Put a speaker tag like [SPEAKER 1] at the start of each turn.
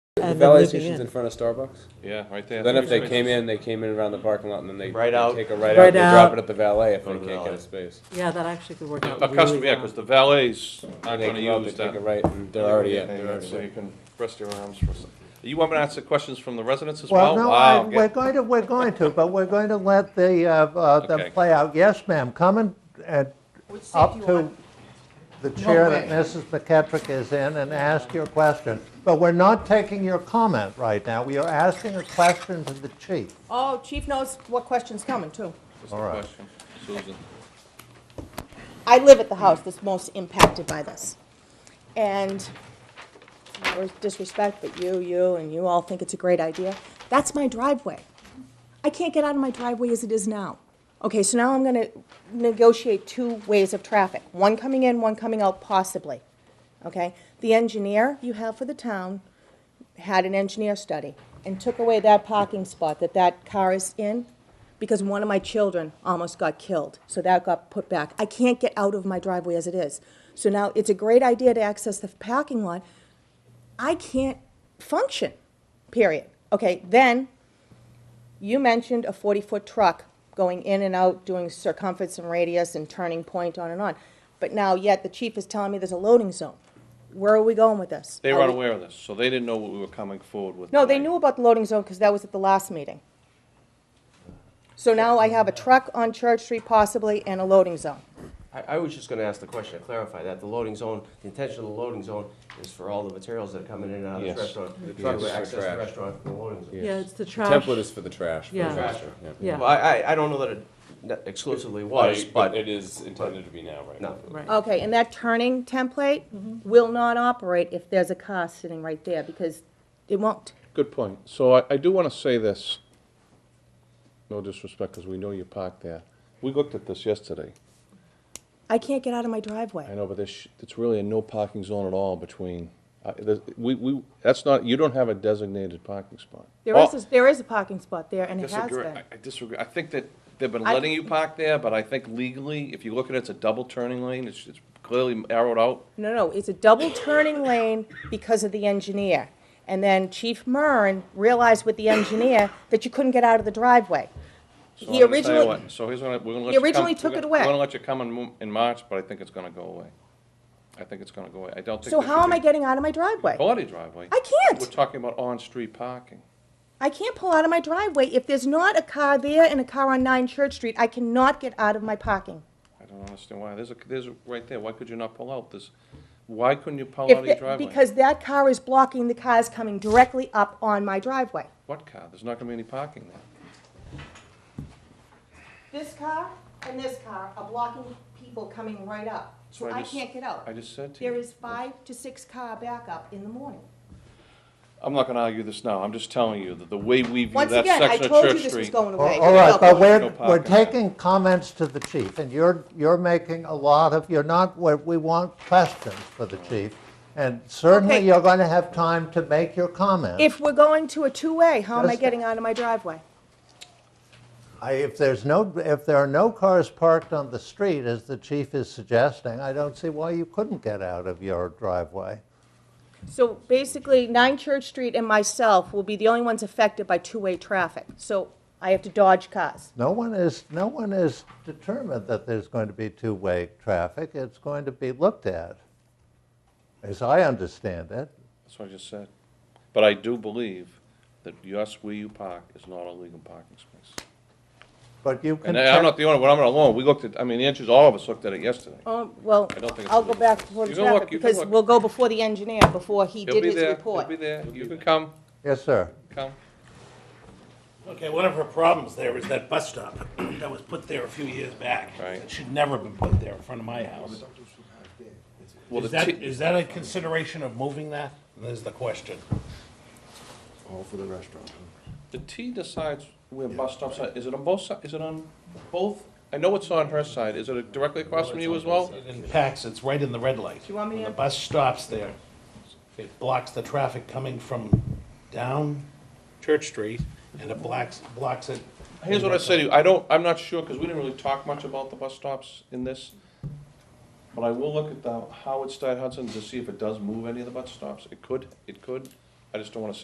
[SPEAKER 1] The
[SPEAKER 2] and then
[SPEAKER 1] valet
[SPEAKER 2] looping
[SPEAKER 1] station's in
[SPEAKER 2] in.
[SPEAKER 1] front of Starbucks?
[SPEAKER 3] Yeah, right there.
[SPEAKER 1] Then if they came in, they came in around the parking lot and then they
[SPEAKER 4] Right
[SPEAKER 1] they
[SPEAKER 4] out.
[SPEAKER 1] take a right
[SPEAKER 2] Right
[SPEAKER 1] out, they drop
[SPEAKER 2] out.
[SPEAKER 1] it at the valet if
[SPEAKER 4] Go
[SPEAKER 1] they
[SPEAKER 4] to the
[SPEAKER 1] can't get a
[SPEAKER 4] valet.
[SPEAKER 1] space.
[SPEAKER 2] Yeah, that actually could work
[SPEAKER 3] A
[SPEAKER 2] out really
[SPEAKER 3] customer, yeah,
[SPEAKER 2] well.
[SPEAKER 3] because the valets aren't
[SPEAKER 1] And they
[SPEAKER 3] gonna
[SPEAKER 1] come out, they
[SPEAKER 3] use
[SPEAKER 1] take a
[SPEAKER 3] that.
[SPEAKER 1] right and they're already in.
[SPEAKER 3] thing,
[SPEAKER 1] they're already
[SPEAKER 3] So
[SPEAKER 1] in.
[SPEAKER 3] you can rest your arms for a second. You want me to answer questions from the residents as well? Ah,
[SPEAKER 5] Well, no, I-
[SPEAKER 3] Oh, Wow,
[SPEAKER 5] we're
[SPEAKER 3] get-
[SPEAKER 5] going to, we're going to, but we're going to let the, uh, uh,
[SPEAKER 3] Okay.
[SPEAKER 5] them play out. Yes, ma'am, come and, and
[SPEAKER 6] Which seat do
[SPEAKER 5] up
[SPEAKER 6] you
[SPEAKER 5] to
[SPEAKER 6] want?
[SPEAKER 5] the chair
[SPEAKER 6] way.
[SPEAKER 5] that Mrs. McKetrick is in and ask your question. But we're not taking your comment right now. We are asking a question to the chief.
[SPEAKER 6] Oh, chief knows what question's coming, too.
[SPEAKER 3] what's the
[SPEAKER 5] all right.
[SPEAKER 3] question? Susan,
[SPEAKER 6] I live at the house that's most impacted by this. And no disrespect, but you, you, and you all think it's a great idea. That's my driveway. I can't get out of my driveway as it is now. Okay, so now I'm gonna negotiate two ways of traffic, one coming in, one coming out possibly. Okay? The engineer you have for the town had an engineer study and took away that parking spot that that car is in because one of my children almost got killed, so that got put back. I can't get out of my driveway as it is. So now it's a great idea to access the parking lot. I can't function, period. Okay, then you mentioned a 40-foot truck going in and out, doing circumference and radius and turning point on and on. But now yet the chief is telling me there's a loading zone. Where are we going with this?
[SPEAKER 3] they
[SPEAKER 6] Are
[SPEAKER 3] were
[SPEAKER 6] we-
[SPEAKER 3] unaware of this, so they didn't know what we were coming forward with.
[SPEAKER 6] no, they
[SPEAKER 3] tonight.
[SPEAKER 6] knew about the loading zone because that was at the last meeting. So now I have a truck on Church Street possibly and a loading zone.
[SPEAKER 7] I, I was just gonna ask the question, to clarify that, the loading zone, the intention of the loading zone is for all the materials that are coming in and out of
[SPEAKER 1] Yes.
[SPEAKER 7] the restaurant. The
[SPEAKER 1] trucks
[SPEAKER 7] truck will
[SPEAKER 1] for
[SPEAKER 7] access
[SPEAKER 1] trash.
[SPEAKER 7] the restaurant, the loading zone.
[SPEAKER 2] Yeah, it's the trash,
[SPEAKER 1] Template is for the trash. for the
[SPEAKER 2] Yeah.
[SPEAKER 1] trash,
[SPEAKER 7] Trash.
[SPEAKER 2] yeah,
[SPEAKER 7] Well, I, I, I don't know that it ne- exclusively was,
[SPEAKER 1] But
[SPEAKER 7] but,
[SPEAKER 1] it is intended to be now, right?
[SPEAKER 7] no.
[SPEAKER 2] right.
[SPEAKER 6] Okay, and that turning template will not operate if there's a car sitting right there because it won't.
[SPEAKER 8] Good point. So I, I do want to say this, no disrespect, because we know you parked there. We looked at this yesterday.
[SPEAKER 6] I can't get out of my
[SPEAKER 8] I
[SPEAKER 6] driveway.
[SPEAKER 8] know, but there's, it's really a no parking zone at all between, uh, there's- we, we, that's not, you don't have a designated parking spot.
[SPEAKER 6] There is, a- there is a parking spot there and it has
[SPEAKER 3] Disagree, Oh. I
[SPEAKER 6] been.
[SPEAKER 3] I disagree, I think that they've been
[SPEAKER 6] I-
[SPEAKER 3] letting you park there, but I think legally, if you look at it, it's a double turning lane, it's, it's clearly arrowed out.
[SPEAKER 6] No, no, it's a double turning lane because of the engineer. And then Chief Murn realized with the engineer that you couldn't get out of the driveway.
[SPEAKER 3] So
[SPEAKER 6] He
[SPEAKER 3] I'm gonna tell you
[SPEAKER 6] originally-
[SPEAKER 3] what, So he's gonna, we're gonna let
[SPEAKER 6] He
[SPEAKER 3] you come.
[SPEAKER 6] originally
[SPEAKER 3] we're
[SPEAKER 6] took
[SPEAKER 3] gonna-
[SPEAKER 6] it away.
[SPEAKER 3] We're gonna let you come in, mo- in March, but I think it's gonna go away. I think it's gonna go away, I don't think.
[SPEAKER 6] So
[SPEAKER 3] there should
[SPEAKER 6] how am
[SPEAKER 3] be
[SPEAKER 6] I getting out of my driveway?
[SPEAKER 3] Body driveway.
[SPEAKER 6] I can't.
[SPEAKER 3] We're talking about on-street parking.
[SPEAKER 6] I can't pull out of my driveway. If there's not a car there and a car on 9 Church Street, I cannot get out of my parking.
[SPEAKER 3] I don't understand why, there's a, there's a, right there, why could you not pull out this? Why couldn't you pull
[SPEAKER 6] If
[SPEAKER 3] out of your
[SPEAKER 6] the-
[SPEAKER 3] driveway?
[SPEAKER 6] Because that car is blocking the cars coming directly up on my driveway.
[SPEAKER 3] What car? There's not gonna be any parking there.
[SPEAKER 6] This car and this car are blocking people coming right up. So
[SPEAKER 3] That's what I
[SPEAKER 6] I
[SPEAKER 3] just-
[SPEAKER 6] can't get out.
[SPEAKER 3] I just said to
[SPEAKER 6] There
[SPEAKER 3] you.
[SPEAKER 6] is five to six car backup in the morning.
[SPEAKER 3] I'm not gonna argue this now, I'm just telling you that the way we view that
[SPEAKER 6] Once again,
[SPEAKER 3] section of
[SPEAKER 6] I
[SPEAKER 3] Church Street.
[SPEAKER 6] told you this was going away.
[SPEAKER 5] All right, but
[SPEAKER 3] No
[SPEAKER 5] we're,
[SPEAKER 3] parking.
[SPEAKER 5] we're taking comments to the chief, and you're, you're making a lot of, you're not, we we want questions for the chief. And certainly,
[SPEAKER 6] Okay.
[SPEAKER 5] you're going to have time to make your comments.
[SPEAKER 6] If we're going to a two-way, how am I
[SPEAKER 5] Just-
[SPEAKER 6] getting out of my driveway?
[SPEAKER 5] I, if there's no, if there are no cars parked on the street, as the chief is suggesting, I don't see why you couldn't get out of your driveway.
[SPEAKER 6] So basically, 9 Church Street and myself will be the only ones affected by two-way traffic. So I have to dodge cars.
[SPEAKER 5] No one is, no one is determined that there's going to be two-way traffic. It's going to be looked at, as I understand it.
[SPEAKER 3] That's what I just said. But I do believe that yes, where you park is not a legal parking space.
[SPEAKER 5] But you can.
[SPEAKER 3] And I- I'm
[SPEAKER 5] check-
[SPEAKER 3] not the only one, I'm not alone, we looked at, I mean, the answers, all of us looked at it yesterday.
[SPEAKER 6] Oh, well,
[SPEAKER 3] I don't think it's
[SPEAKER 6] I'll go
[SPEAKER 3] legal.
[SPEAKER 6] back before the
[SPEAKER 3] You can look,
[SPEAKER 6] traffic,
[SPEAKER 3] you can
[SPEAKER 6] because
[SPEAKER 3] look.
[SPEAKER 6] we'll go before the engineer, before he
[SPEAKER 3] He'll
[SPEAKER 6] did
[SPEAKER 3] be
[SPEAKER 6] his
[SPEAKER 3] there, he'll
[SPEAKER 6] report.
[SPEAKER 3] be there, you can come,
[SPEAKER 5] Yes, sir.
[SPEAKER 3] come.
[SPEAKER 9] Okay, one of her problems there is that bus stop that was put there a few years back.
[SPEAKER 3] Right.
[SPEAKER 9] It should never have been put there in front of my house.
[SPEAKER 3] Well,
[SPEAKER 9] Is
[SPEAKER 3] the
[SPEAKER 9] that,
[SPEAKER 3] ti-
[SPEAKER 9] is that a consideration of moving that? There's the question.
[SPEAKER 4] All for the restaurant.
[SPEAKER 3] The T decides where bus stops are, is it on both sides? is it on both? I know it's on her side, is it directly across from you as well?
[SPEAKER 9] It impacts, it's right in the red light.
[SPEAKER 6] you want me
[SPEAKER 9] When
[SPEAKER 6] to-
[SPEAKER 9] the bus stops there, it blocks the traffic coming from down Church Street, and it blocks, blocks it.
[SPEAKER 3] Here's what I say to you, I don't, I'm not sure, because we didn't really talk much about the bus stops in this. But I will look at the Howard Stein Hudson to see if it does move any of the bus stops, it could, it could, I just don't wanna say